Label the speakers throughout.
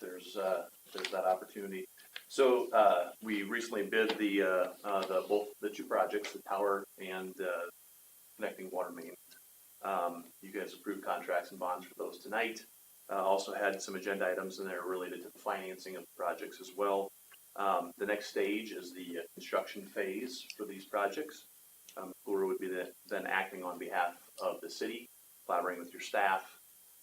Speaker 1: there's, uh, there's that opportunity. So, uh, we recently bid the, uh, uh, the, both, the two projects, the tower and, uh, connecting water main. Um, you guys approved contracts and bonds for those tonight. Uh, also had some agenda items in there related to the financing of the projects as well. Um, the next stage is the uh, construction phase for these projects. Um, Flora would be the- then acting on behalf of the city, collaborating with your staff,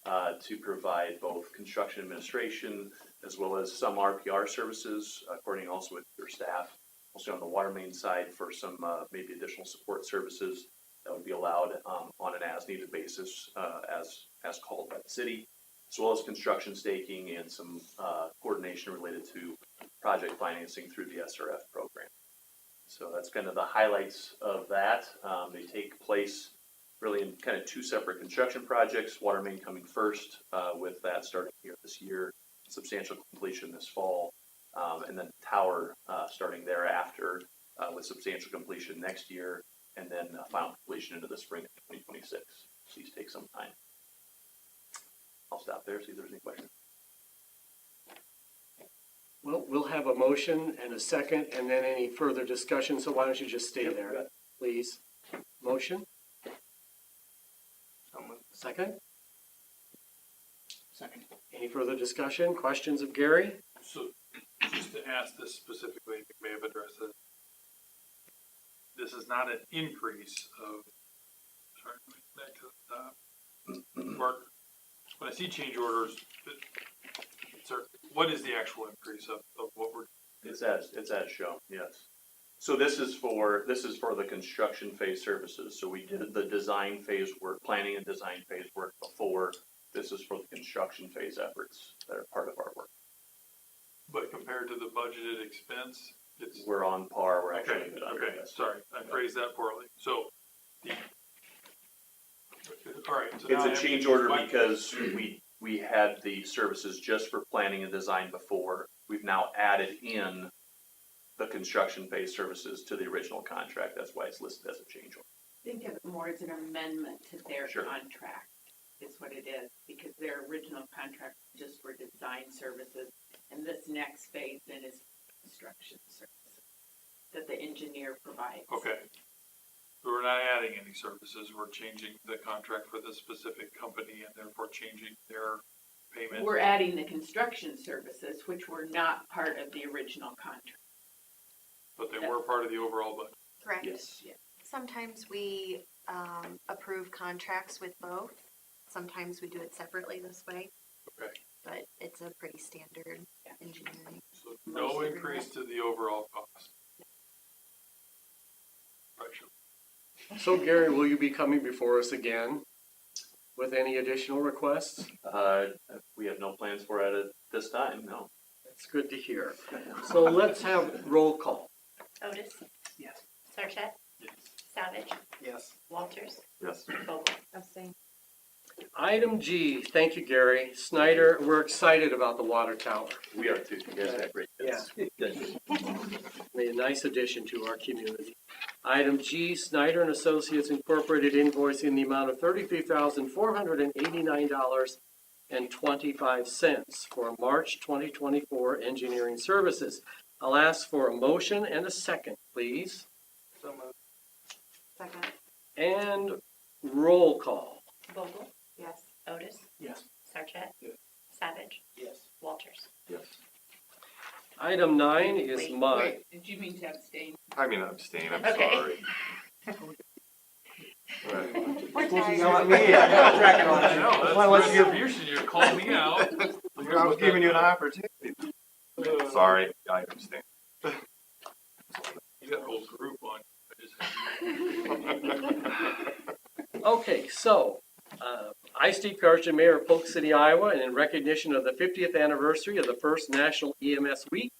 Speaker 1: uh, to provide both construction administration as well as some RPR services, according also with your staff, also on the water main side for some, uh, maybe additional support services that would be allowed, um, on an as-needed basis, uh, as, as called by the city, as well as construction staking and some, uh, coordination related to project financing through the SRF program. So that's kind of the highlights of that. Um, they take place really in kind of two separate construction projects, water main coming first, uh, with that starting here this year, substantial completion this fall, um, and then tower, uh, starting thereafter, uh, with substantial completion next year, and then uh, final completion into the spring of twenty twenty-six. These take some time. I'll stop there, see if there's any questions.
Speaker 2: Well, we'll have a motion and a second, and then any further discussion, so why don't you just stay
Speaker 1: Yep,
Speaker 2: there,
Speaker 1: got it.
Speaker 2: please? Motion, second?
Speaker 3: Second.
Speaker 2: Any further discussion, questions of Gary?
Speaker 4: So, just to ask this specifically, you may have addressed it. This is not an increase of, sorry, let me go back to the top. Mark, when I see change orders, it- it's our- what is the actual increase of, of what we're,
Speaker 1: It's as, it's as shown, yes. So this is for, this is for the construction phase services. So we did the design phase work, planning and design phase work before. This is for the construction phase efforts that are part of our work.
Speaker 4: but compared to the budgeted expense, it's.
Speaker 1: We're on par, we're actually a
Speaker 4: Okay,
Speaker 1: bit under.
Speaker 4: okay,
Speaker 1: yes.
Speaker 4: sorry, I phrased that poorly, so. the- All right. so
Speaker 1: It's
Speaker 4: now I
Speaker 1: a
Speaker 4: have to-
Speaker 1: change order
Speaker 4: my-
Speaker 1: because we, we had the services just for planning and design before. We've now added in the construction phase services to the original contract. That's why it's listed as a change order.
Speaker 5: think of it more as an amendment to their
Speaker 1: Sure.
Speaker 5: contract, is what it is, because their original contract just for design services, and this next phase then is construction services that the engineer provides.
Speaker 4: Okay. So we're not adding any services, we're changing the contract for this specific company and therefore changing their payment.
Speaker 5: We're adding the construction services, which were not part of the original contract.
Speaker 4: But they were part of the overall budget.
Speaker 6: Correct.
Speaker 1: Yes.
Speaker 5: Yeah.
Speaker 6: Sometimes we um, approve contracts with both. Sometimes we do it separately this way.
Speaker 4: Okay.
Speaker 6: But it's a pretty standard
Speaker 5: Yeah.
Speaker 6: engineering.
Speaker 4: So no
Speaker 6: Mostly
Speaker 4: increase to the overall cost. Right, sure.
Speaker 2: So Gary, will you be coming before us again with any additional requests?
Speaker 1: Uh, we have no plans for it at this time, no.
Speaker 2: That's good to hear. So let's have roll call.
Speaker 7: Otis?
Speaker 3: Yes.
Speaker 7: Sarchet?
Speaker 4: Yes.
Speaker 7: Savage?
Speaker 3: Yes.
Speaker 7: Walters?
Speaker 1: Yes.
Speaker 7: Vogel?
Speaker 2: Item G, thank you, Gary. Snyder, we're excited about the water tower.
Speaker 1: We are too. You guys have great kids.
Speaker 2: a nice addition to our community. Item G, Snyder and Associates Incorporated invoice in the amount of thirty-three thousand four hundred and eighty-nine dollars and twenty-five cents for March twenty twenty-four engineering services. I'll ask for a motion and a second, please,
Speaker 3: So moved.
Speaker 6: Second.
Speaker 2: and roll call.
Speaker 7: Vogel?
Speaker 6: Yes.
Speaker 7: Otis?
Speaker 3: Yes.
Speaker 7: Sarchet?
Speaker 3: Yes.
Speaker 7: Savage?
Speaker 3: Yes.
Speaker 7: Walters?
Speaker 2: Item nine is
Speaker 7: Wait,
Speaker 2: mine.
Speaker 5: Wait, Did you mean to abstain?
Speaker 8: I mean, abstain, I'm
Speaker 7: Okay.
Speaker 8: sorry. Right.
Speaker 7: We're
Speaker 3: me, I got a tracking on
Speaker 4: I
Speaker 3: it.
Speaker 4: know,
Speaker 3: That's why I let
Speaker 4: that's
Speaker 3: you-
Speaker 4: contribution, you called me out.
Speaker 8: I was giving you an opportunity.
Speaker 4: Uh,
Speaker 8: Sorry, I abstain.
Speaker 4: You got a whole group on. I just had you.
Speaker 2: Okay, so, uh, I, Steve Carson, Mayor of Polk City, Iowa, and in recognition of the fiftieth anniversary of the first National EMS Week,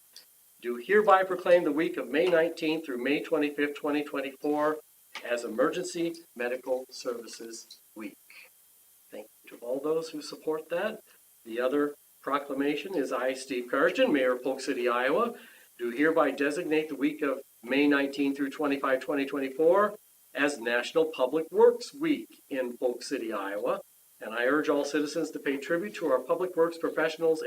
Speaker 2: do hereby proclaim the week of May nineteenth through May twenty-fifth, twenty twenty-four as Emergency Medical Services Week. Thank you to all those who support that. The other proclamation is I, Steve Carson, Mayor of Polk City, Iowa, do hereby designate the week of May nineteenth through 25, 2024 as National Public Works Week in Polk City, Iowa. And I urge all citizens to pay tribute to our public works professionals